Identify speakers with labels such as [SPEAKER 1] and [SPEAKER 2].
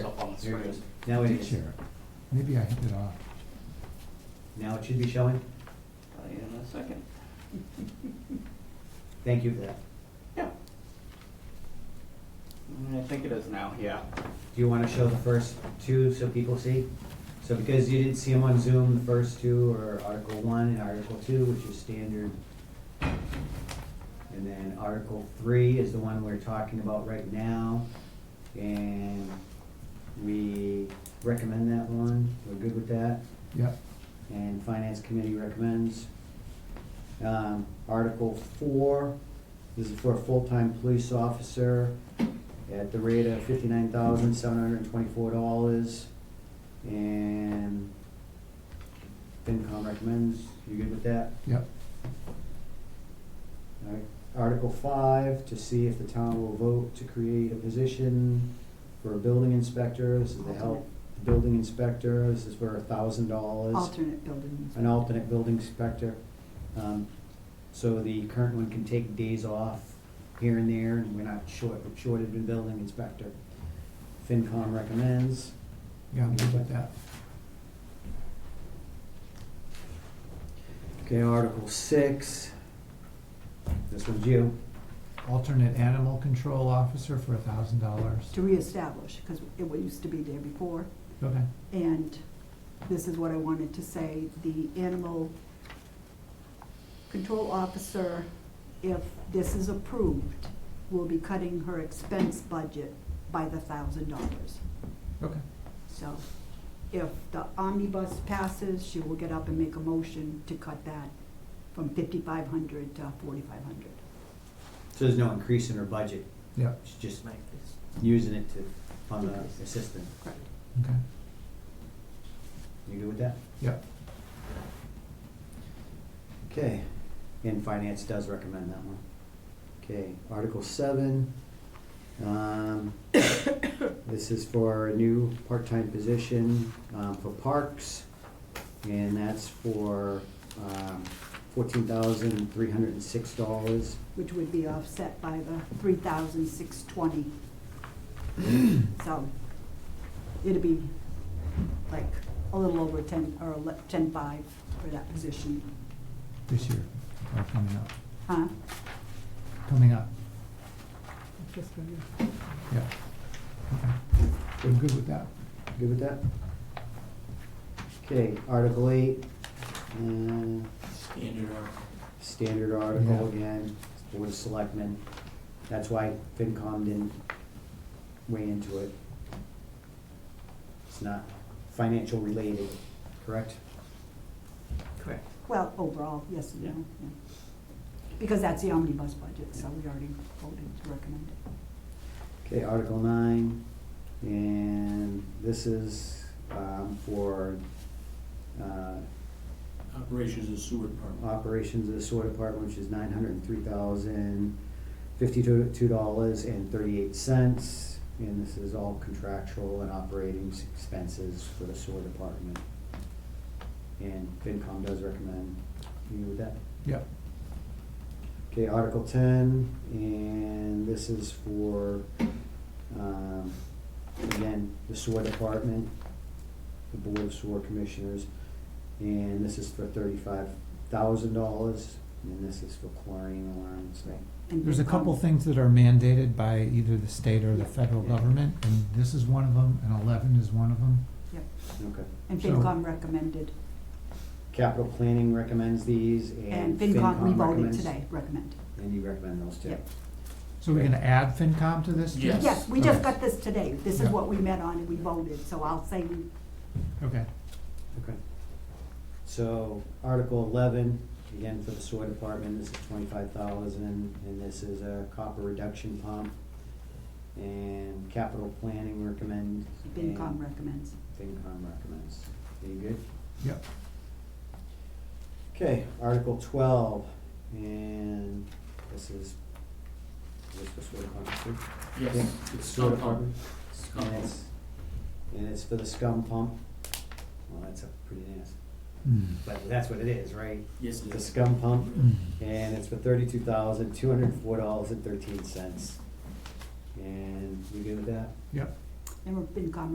[SPEAKER 1] That's
[SPEAKER 2] There it
[SPEAKER 1] right.
[SPEAKER 2] is.
[SPEAKER 1] Now it
[SPEAKER 3] Did
[SPEAKER 1] is.
[SPEAKER 3] share. Maybe I hit it off.
[SPEAKER 1] Now it should be showing.
[SPEAKER 2] I'll get Uh, in a second.
[SPEAKER 1] Thank you for that.
[SPEAKER 2] Yeah. Mm, I think it is now, yeah.
[SPEAKER 1] Do you want to show the first two so people see? So because you didn't see them on Zoom, the first two are Article One and Article Two, which is standard. And then Article Three is the one we're talking about right now. And we recommend that one. We're good with that.
[SPEAKER 3] Yep,
[SPEAKER 1] And Finance Committee recommends. Um, Article four, this is for a full-time police officer at the rate of fifty-nine thousand, seven hundred and twenty-four dollars. And FinCom recommends, you good with that?
[SPEAKER 3] yep,
[SPEAKER 1] Alright, Article five, to see if the town will vote to create a position for a building inspector, this is the help, building inspector, this is for a thousand dollars.
[SPEAKER 4] Alternate building
[SPEAKER 1] an alternate building inspector. Um, So the current one can take days off here and there, and we're not short, short of a building inspector. FinCom recommends.
[SPEAKER 3] yeah, I'm good with that.
[SPEAKER 1] Okay, Article six. This one's you.
[SPEAKER 3] Alternate animal control officer for a thousand dollars.
[SPEAKER 4] to reestablish, because it wa- used to be there before.
[SPEAKER 3] Okay,
[SPEAKER 4] And this is what I wanted to say, the animal control officer, if this is approved, will be cutting her expense budget by the thousand dollars.
[SPEAKER 3] okay.
[SPEAKER 4] So if the omnibus passes, she will get up and make a motion to cut that from fifty-five hundred to forty-five hundred.
[SPEAKER 1] So there's no increase in her budget,
[SPEAKER 3] Yep,
[SPEAKER 1] she's just using it to fund the assistant.
[SPEAKER 4] Correct.
[SPEAKER 3] okay,
[SPEAKER 1] You good with that?
[SPEAKER 3] yep,
[SPEAKER 1] Okay, and finance does recommend that one. Okay, Article seven. um, This is for a new part-time position um, for parks, and that's for um, fourteen thousand three hundred and six dollars.
[SPEAKER 4] which would be offset by the three thousand six twenty. So it'd be like a little over ten, or ten-five for that position.
[SPEAKER 3] this year, or coming up,
[SPEAKER 4] Huh?
[SPEAKER 3] coming up. Yep, okay. I'm good with that.
[SPEAKER 1] Good with that? Okay, Article eight. uh,
[SPEAKER 2] Standard article.
[SPEAKER 1] standard article
[SPEAKER 3] Yeah.
[SPEAKER 1] again, Board of Selectmen. That's why FinCom didn't weigh into it. It's not financial related, correct?
[SPEAKER 2] Correct.
[SPEAKER 4] Well, overall, yes and no,
[SPEAKER 1] Yeah.
[SPEAKER 4] yeah. Because that's the omnibus budget, so we already voted to recommend it.
[SPEAKER 1] Okay, Article nine, and this is um, for uh,
[SPEAKER 5] Operations and sewer department.
[SPEAKER 1] operations of the sewer department, which is nine hundred and three thousand fifty-two two dollars and thirty-eight cents. And this is all contractual and operating expenses for the sewer department. And FinCom does recommend you with that.
[SPEAKER 3] Yep,
[SPEAKER 1] Okay, Article ten, and this is for, um, again, the sewer department, the Board of Sewer Commissioners, and this is for thirty-five thousand dollars, and this is for chlorine alarms, right?
[SPEAKER 4] And
[SPEAKER 3] there's a
[SPEAKER 4] FinCom
[SPEAKER 3] couple things that are mandated by either the state or the
[SPEAKER 4] Yeah.
[SPEAKER 3] federal
[SPEAKER 1] Yeah.
[SPEAKER 3] government, and this is one of them, and eleven is one of them.
[SPEAKER 4] Yep,
[SPEAKER 1] Okay.
[SPEAKER 4] and
[SPEAKER 3] So-
[SPEAKER 4] FinCom recommended,
[SPEAKER 1] Capital Planning recommends these,
[SPEAKER 4] and
[SPEAKER 1] and
[SPEAKER 4] FinCom, we
[SPEAKER 1] FinCom
[SPEAKER 4] voted
[SPEAKER 1] recommends.
[SPEAKER 4] today, recommend.
[SPEAKER 1] And you recommend those too?
[SPEAKER 4] Yep.
[SPEAKER 3] So we're gonna add FinCom to this? too?
[SPEAKER 5] Yes.
[SPEAKER 4] Yes, we just
[SPEAKER 3] Okay.
[SPEAKER 4] got this today, this is
[SPEAKER 3] Yeah.
[SPEAKER 4] what we met on and we voted, so I'll say we
[SPEAKER 3] Okay,
[SPEAKER 1] Okay. So Article eleven, again for the sewer department, this is twenty-five thousand, and this is a copper reduction pump. And capital planning recommend. and
[SPEAKER 4] FinCom recommends.
[SPEAKER 1] FinCom recommends. Are you good?
[SPEAKER 3] yep,
[SPEAKER 1] Okay, Article twelve, and this is, this is sewer department, too? Yeah,
[SPEAKER 5] Yes.
[SPEAKER 1] it's
[SPEAKER 5] It's
[SPEAKER 1] sewer
[SPEAKER 5] not
[SPEAKER 1] department.
[SPEAKER 5] on. It's not
[SPEAKER 1] And
[SPEAKER 5] on.
[SPEAKER 1] it's, and it's for the scum pump. Well, that's a pretty nasty,
[SPEAKER 3] Hmm.
[SPEAKER 1] but that's what it is, right?
[SPEAKER 5] Yes, it
[SPEAKER 1] The
[SPEAKER 5] is.
[SPEAKER 1] scum pump.
[SPEAKER 3] Hmm.
[SPEAKER 1] And it's for thirty-two thousand, two hundred and four dollars and thirteen cents. And you good with that?
[SPEAKER 3] yep.
[SPEAKER 4] And FinCom